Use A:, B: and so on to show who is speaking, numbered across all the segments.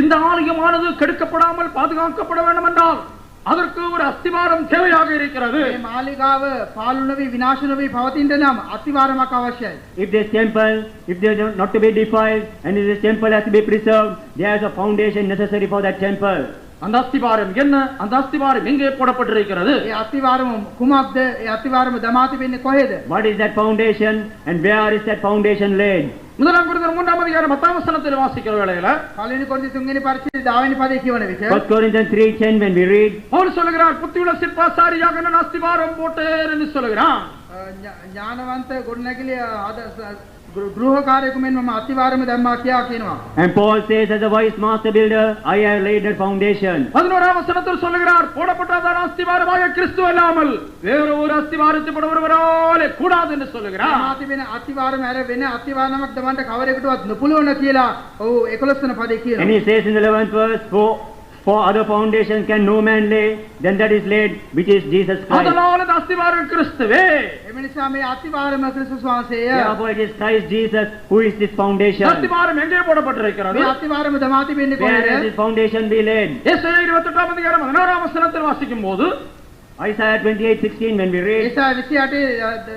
A: இந்த ஆலயமானது கெடுக்கப்படாமல் பாதுகாக்கப்பட வேண்டும் என்றால் அதற்கு ஒரு අස්තිවාரம் தேவையாக இருக்கிறது
B: මේ මාලිගාව පාලු නොවී විනාශ නොවී පවතින්න නම් අතිවාරමක් අවශ්‍යයි.
C: If this temple, if they are not to be defiled, and if this temple has to be preserved, there is a foundation necessary for that temple.
A: அந்த அஸ்திவாரம் என்ன அந்த அஸ்திவாரம் எங்கே போடப்பட்டிருக்கிறது
B: ඒ අතිවාරම කුමක්ද? ඒ අතිවාරම දමා තිබෙන්නේ කොහෙද?
C: What is that foundation, and where is that foundation laid?
A: முதலாம் குருதர் மூன்றாம் அதிகாரம் பத்தாம் வசனத்தில் வாசிக்கிற வேளையில
B: පළවෙනි කොරින්ති තුන්වෙනි පරිච්ඡේදය 10 වෙනි පදේ කියවන විට
C: First Corinthians three ten, when we read,
A: Pavul சொல்லுகிறார் புத்தியுள்ள சிற்பாசாரியாக நான் அஸ்திவாரம் போட்டேன் என்று சொல்லுகிறான்
B: අ, ඥා- ඥානවන්ත ගොඩනැගිලි අද ස- ගෘ- ගෘහකාරයෙකු මෙන් මම අතිවාරම දැම්මා කියා කියනවා.
C: and Paul says, as a wise master builder, I have laid that foundation.
A: பதினோராம் வசனத்தில் சொல்லுகிறார் போடப்பட்டதான அஸ்திவாரமாக கிறிஸ்து அல்லாமல் வேறு ஒரு அஸ்திவாரத்தை போட ஒருவராலே கூடாது என்று சொல்லுகிறார்
B: දමා තිබෙන අතිවාරම ඇර වෙන අතිවාරමක් දමන්න කවරෙකුටවත් නොපුළවන කියලා ඔව් 11 වෙනි පදේ
C: And
B: කියනවා.
C: he says in the eleventh verse, for, for other foundations can no man lay than that is laid, which is Jesus Christ.
A: அதனால் அந்த அஸ்திவாரம் கிறிஸ்துவே
B: එම නිසා මේ අතිවාරම ක්‍රිස්තුස් වහන්සේය.
C: Therefore it is Christ Jesus who is this foundation.
A: அஸ்திவாரம் எங்கே போடப்பட்டிருக்கிறது
B: මේ අතිවාරම දමා තිබෙන්නේ
C: Where has
B: කොහෙද?
C: this foundation be laid?
A: ஏசாயா 28 அதிகாரம் 11 வசனத்தில் வாசிக்கும் போது
C: Isaiah twenty-eight sixteen, when we read,
B: ඒසා 28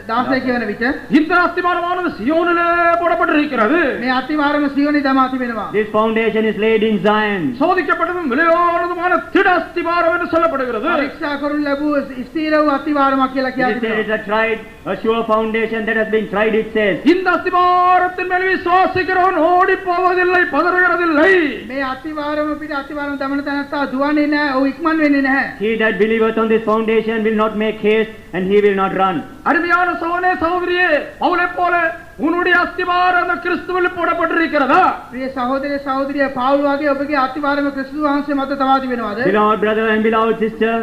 B: 16 කියවන විට
A: இந்த அஸ்திவாரமானது சியோனிலே போடப்பட்டிருக்கிறது
B: මේ අතිවාරම සියොනි දමා තිබෙනවා.
C: This foundation is laid in Zion.
A: சோதிக்கப்பட்டதும் விலையானதுமான திட அஸ்திவாரம் என்று சொல்லப்படுகிறது
B: පරීක්ෂා කරනු ලැබූ ස්ථීර වූ අතිවාරමක් කියලා
C: It says it's
B: කියන්නේ.
C: a tried, a sure foundation that has been tried, it says.
A: இந்த அஸ்திவாரத்தின் மேல் விசுவாசிக்கிறவன் ஓடி போவதில்லை பதறுகிறதில்லை
B: මේ අතිවාරම පිට අතිවාරම දමන තැනත්තා දුවන්නේ නැහැ. ඔහු ඉක්මන් වෙන්නේ නැහැ.
C: He that believeth on this foundation will not make haste and he will not run.
A: அருமையான சோனே சகோதரியே அவளைப் போல உன்னுடைய அஸ்திவாரம் அந்த கிறிஸ்துவில் போடப்பட்டிருக்கிறதா
B: ප්‍රිය සහෝදරය සහෝදරිය පාවුල වගේ ඔබගේ අතිවාරම ක්‍රිස්තුස් වහන්සේ මත තබා තිබෙනවද?
C: Beloved brother and beloved sister,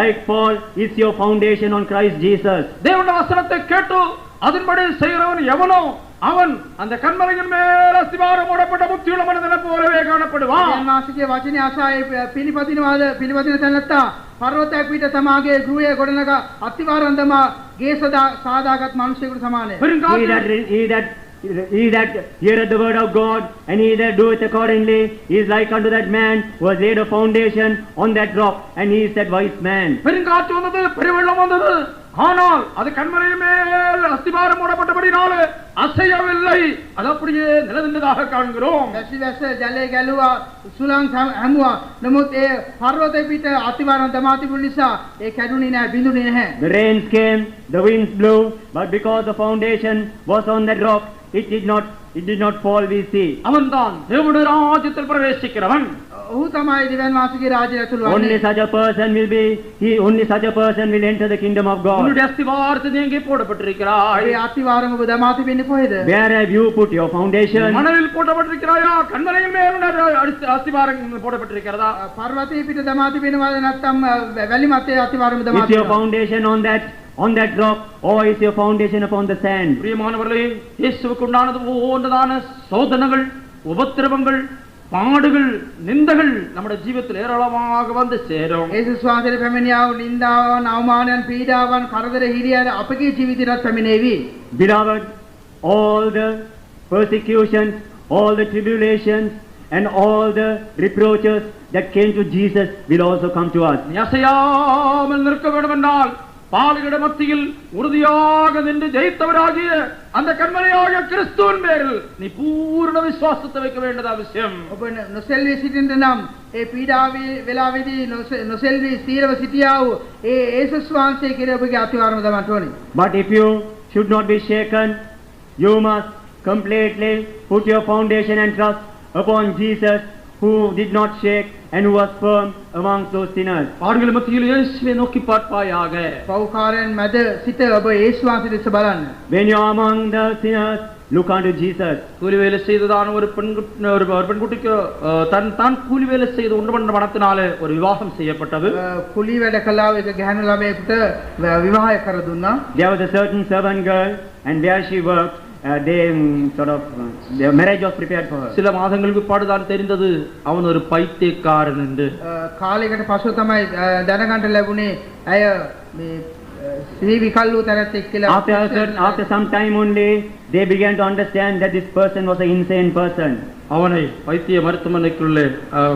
C: like Paul, is your foundation on Christ Jesus.
A: தேவனுடைய வசனத்தை கேட்டு அதன்படி செய்கிறவன் எவனோ அவன் அந்த கண்மலையின் மேல் அஸ்திவாரம் போடப்பட்ட புத்தியுள்ள மனிதனை போலவே காணப்படுவான்
B: මාසිකයේ වචනේ ආශායේ පිළිපදිනවාද පිළිපදින තැනත්තා පර්වතයක් පිට තමාගේ ගෘහය ගොඩනගා අතිවාරම් දමා ගේ සදා සාදාගත් මිනිසෙකුට සමානයි.
C: He
A: பெருங்காற்றில்
C: that, he that, he that heareth the word of God and he that doeth accordingly is like unto that man who has laid a foundation on that rock and he is that wise man.
A: பெருங்காற்று வந்தது பெருவெள்ளம் வந்தது ஆனால் அது கண்மலையின் மேல் அஸ்திபாரம் போடப்பட்டபடினால அசையவில்லை அது அப்படியே நிலநின்றதாக காண்கிறோம்
B: වැසි වැස ජලය ගැලුවා සුළං හැම- හැමුවා නමුත් ඒ පර්වතය පිට අතිවරණ තමා තිබුණු නිසා ඒ කැඩුනේ නැහැ බිඳුනේ නැහැ
C: The rains came, the winds blew, but because the foundation was on that rock, it did not, it did not fall, we see.
A: அவன்தான் தேவனுடைய ராஜ்யத்தில் பிரவேசிக்கிறவன்
B: ඔහු තමයි දිවන් වාසිකේ රාජ්‍යය ඇතුළු
C: Only
B: වන්නේ
C: such a person will be, he, only such a person will enter the kingdom of God.
A: உன்னுடைய அஸ்திபாரத்தை எங்கே போடப்பட்டிருக்கிறாய்
B: ඒ අතිවාරම ඔබ තමා තිබෙන්නේ කොහෙද
C: Where have you put your foundation?
A: மணலில் போடப்பட்டிருக்கிறாயா கண்மலையின் மேல் உன்னுடைய அடிஸ்த- அஸ்திபாரம் போடப்பட்டிருக்கிறதா
B: අ, පර්වතය පිට තමා තිබෙනවද නැත්නම් අ, වැ- වැලි මතේ අතිවාරම තමා
C: Is your
B: තිබෙනවද?
C: foundation on that, on that rock, or is your foundation upon the sand?
A: பிரியமானவர்களே இயேசுவுக்கு உண்டானது ஒவ்வொன்றதான சோதனைகள் உபத்திரவங்கள் பாடுகள் நிந்தகள் நம்முடைய ஜீவத்தில் ஏராளமாக வந்து சேரும்
B: යේසුස් වහන්සේ පැමිණියා වූ නින්දාවන් අවමානයන් පීඩාවන් කරදර හිරියන අපගේ ජීවිතයට පැමිණේවි
C: Beloved, all the persecutions, all the tribulations, and all the reproaches that came to Jesus will also come to us.
A: நீ அசையாமல் நிற்க வேண்டும் என்றால் பாலுகிட மத்தியில் உறுதியாக நின்று ஜெயித்தவராகிய அந்த கண்மனையாகிய கிறிஸ்துவின் பேரில் நீ பூரண விசுவாசத்தை வைக்க வேண்டியது அவசியம்
B: ඔබ නො- නොසෙල්වී සිටින්ට නම් ඒ පීඩාවේ වෙලාවේදී නොසෙ- නොසෙල්වී සීරව සිටියා වූ ඒ ඒසුස් වහන්සේ කෙරේ ඔබගේ අතිවාරම දමන්න ඕනේ.
C: But if you should not be shaken, you must completely put your foundation and trust upon Jesus who did not shake and who was firm amongst those sinners.
A: பாடுகள் மத்தியில் இயேசுவை நோக்கி பார்ப்பாயாக
B: පෞකාරයන් මැද සිට ඔබ ඒසුස් වහන්සේ දෙස බලන්න.
C: When you are among the sinners, look unto Jesus.
A: கூலி வேலை செய்ததான ஒரு பெண் ஒரு ஒரு பெண்குட்டிக்கு அஹ், தன் தான் கூலி வேலை செய்து உண்டு பண்ண பணத்தினாலே ஒரு விவாகம் செய்யப்பட்டது
B: අ, කුලී වැඩ කළා වූ එක ගැහැණු ළමයෙකුට ව- විවාහය කර දුන්නා.
C: There was a certain servant girl, and where she worked, uh, they mm, sort of, uh, their marriage was prepared for her.
A: சில மாதங்களுக்கு பாடுதான் தெரிந்தது அவன் ஒரு பைத்தியக்காரன் என்று
B: අ, කාලයකට පසුව තමයි අ, දැනගන්න ලැබුණේ ඇය මේ ශ්‍රී විකල්ලු තැනැත්තෙක් කියලා
C: After, a certain, after some time only, they began to understand that this person was an insane person.
A: அவனை வைத்திய மருத்துவமனைக்குள்ளே அஹ்,